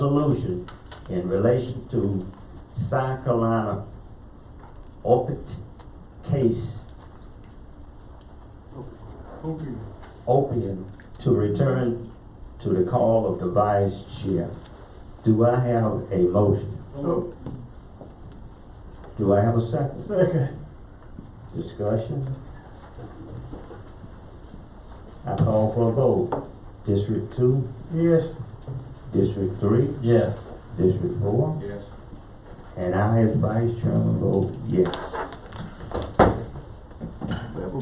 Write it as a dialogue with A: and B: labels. A: resolution in relation to South Carolina opiate case
B: Okay.
A: opium to return to the call of the vice chair. Do I have a motion?
B: So,
A: Do I have a second?
B: second.
A: Discussion? I call for a vote. District two,
B: Yes.
A: district three,
C: Yes.
A: district four,
B: Yes.
A: and I as vice chairman vote yes.